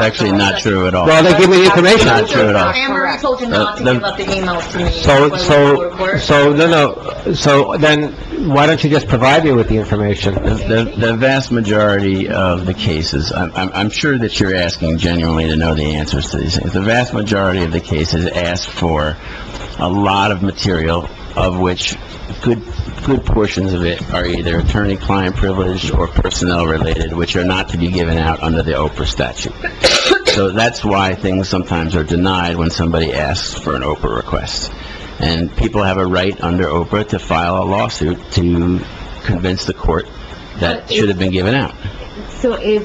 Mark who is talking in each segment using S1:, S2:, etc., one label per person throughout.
S1: actually not true at all.
S2: Well, they give me the information.
S1: Not true at all.
S3: Anne Marie told you not to
S1: Uh, the-
S3: give up the emails to me.
S2: So,
S3: when we were at
S2: so,
S3: work.
S2: so, no, no, so then, why don't you just provide me with the information?
S1: The, the vast majority of the cases, I'm, I'm I'm sure that you're asking genuinely to know the answers to these things. The vast majority of the cases ask for a lot of material, of which good, good portions of it are either attorney-client privileged or personnel-related, which are not to be given out under the Oprah statute. So that's why things sometimes are denied when somebody asks for an Oprah request. And people have a right under Oprah to file a lawsuit to convince the court that should have been given out.
S4: So if,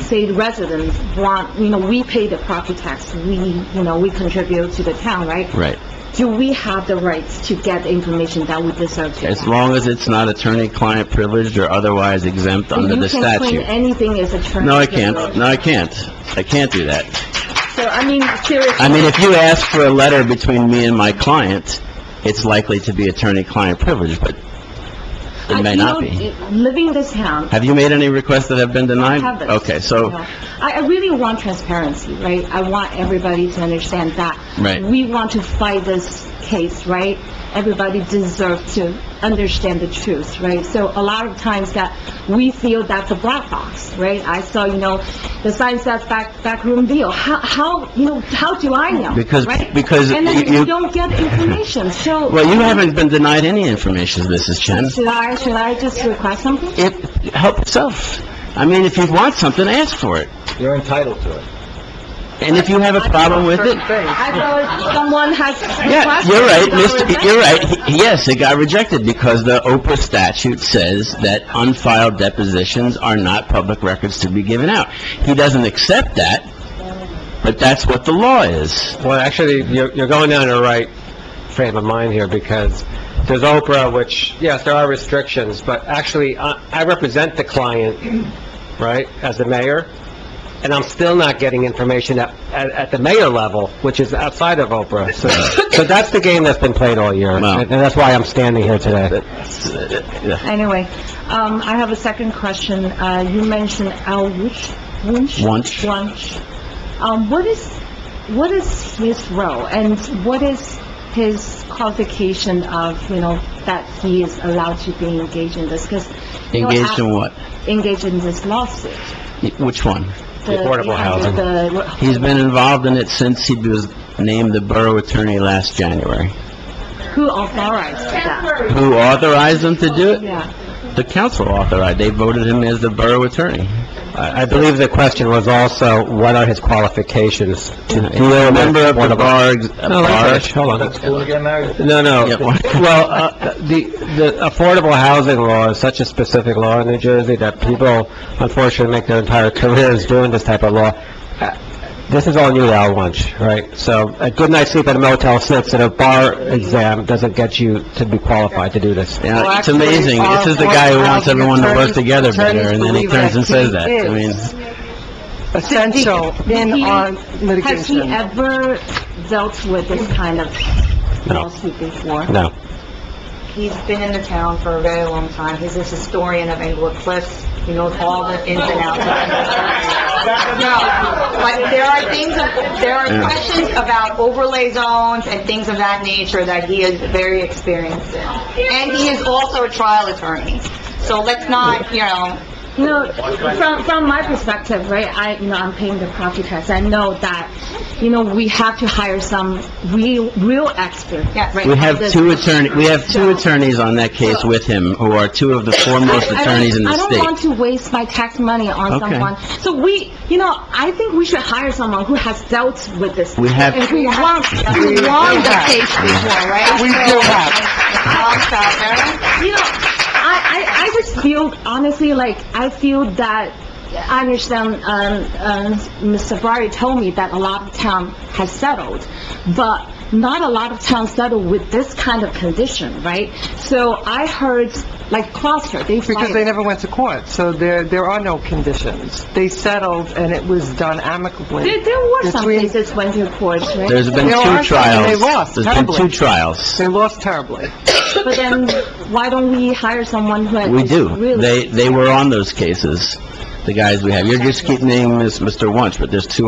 S4: say, the residents want, you know, we pay the property tax, we, you know, we contribute to the town, right?
S1: Right.
S4: Do we have the rights to get the information that we deserve to
S1: As
S4: get?
S1: long as it's not attorney-client privileged or otherwise exempt under the
S4: You can claim
S1: statute.
S4: anything as a term.
S1: No, I can't. No, I can't. I can't do that.
S4: So, I mean, seriously.
S1: I mean, if you ask for a letter between me and my client, it's likely to be attorney-client privileged, but it may
S4: I-
S1: not
S4: you know,
S1: be.
S4: Living in this town,
S1: Have you made any requests that have been denied?
S4: haven't.
S1: Okay,
S4: you
S1: so,
S4: know. I, I really want transparency, right? I want everybody to understand that.
S1: Right.
S4: We want to fight this case, right? Everybody deserves to understand the truth, right? So a lot of times that we feel that's a black box, right? I saw, you know, the sign says back, backroom deal. How, how, you know, how do I know?
S1: Because-
S4: right?
S1: because
S4: And then
S1: you-
S4: you don't get information, so...
S1: well, you haven't been denied any information, Mrs. Chen.
S4: Should I, should I just request something?
S1: If, help yourself. I mean, if you want something, ask for it.
S2: You're entitled to it.
S1: And if you have a problem with it,
S4: I thought someone has
S1: yeah,
S4: requested...
S1: you're right,
S4: someone
S1: Mr.,
S4: rejected.
S1: you're right. He- Yes, it got rejected because the Oprah statute says that unfiled depositions are not public records to be given out. He doesn't accept that, but that's what the law is.
S2: Well, actually, you're, you're going down the right frame of mind here, because there's Oprah, which, yes, there are restrictions, but actually, I, I represent the client, right, as the mayor, and I'm still not getting information at, at, at the mayor level, which is outside of Oprah. So, so that's the game that's been played all year, and
S1: Wow.
S2: and that's why I'm standing here today.
S4: Anyway, um, I have a second question. Uh, you mentioned Al Wunsch? Wunsch?
S1: Wunsch.
S4: Wunsch. Um, what is, what is his role and what is his qualification of, you know, that he is allowed to be engaged in this? Because, you know,
S1: Engaged in what?
S4: Al- engaged in this lawsuit.
S1: Which one?
S4: The-
S2: Affordable
S4: yeah,
S2: housing.
S4: the-
S1: He's been involved in it since he was named the borough attorney last January.
S4: Who authorized that?
S1: Who authorized him to do it?
S4: Yeah.
S1: The council authorized. They voted him as the borough attorney.
S2: I, I believe the question was also, what are his qualifications to
S1: He's
S2: deal with...
S1: Uh, a member of the
S2: affordable-
S1: bar, ex-
S2: No,
S1: bar-
S2: Rich, Oh, hold on. No,
S1: Yeah,
S2: no.
S1: why-
S2: Well, uh, the, the affordable housing law is such a specific law in New Jersey that people unfortunately make their entire careers doing this type of law. Uh, This is all new to Al Wunsch, right? So a good night's sleep at a Motel 6 and a bar exam doesn't get you to be qualified to do this.
S1: You know, it's amazing. This is the guy who wants everyone to work together better, and then he turns and says that. I mean,
S5: essential in
S4: He-
S5: our
S4: Has he
S5: litigation.
S4: ever dealt with this kind of
S2: No.
S4: lawsuit before?
S2: No.
S3: He's been in the town for a very long time. He's a historian of Englewood Cliffs. He knows all the ins and outs of Englewood. No, but there are things, of- there are
S1: Yeah.
S3: questions about overlay zones and things of that nature that he is very experienced in. And he is also a trial attorney. So let's not, you know,
S4: You know, from, from my perspective, right, I, you know, I'm paying the property tax, I know that, you know, we have to hire some real, real expert,
S3: Yes.
S4: right?
S1: we have
S4: This-
S1: two attorney, we have two attorneys on that case with him, who are two of the foremost
S4: I- I don't-
S1: attorneys in the
S4: I don't want
S1: state.
S4: to waste my tax money on
S1: Okay.
S4: someone. So we, you know, I think we should hire someone who has dealt with this.
S1: We have-
S4: And who won, who won the case before, right?
S3: we do have.
S4: You know, I, I, I just feel, honestly, like, I feel that, I understand, um, um, Ms. Savari told me that a lot of town has settled, but not a lot of towns settle with this kind of condition, right? So I heard, like, Gloucester, they
S5: Because they never went to court, so there, there are no conditions. They settled, and it was done
S4: There,
S5: amicably.
S4: there were some
S5: Between-
S4: cases went to court, right?
S1: There's been
S5: There are
S1: two
S5: some, and they
S1: trials.
S5: lost
S1: There's been two
S5: terribly.
S1: trials.
S5: They lost terribly.
S4: But then, why don't we hire someone who has
S1: We do.
S4: really...
S1: They, they were on those cases. the guys we have. You're just getting named as Mr. Wunsch, but there's two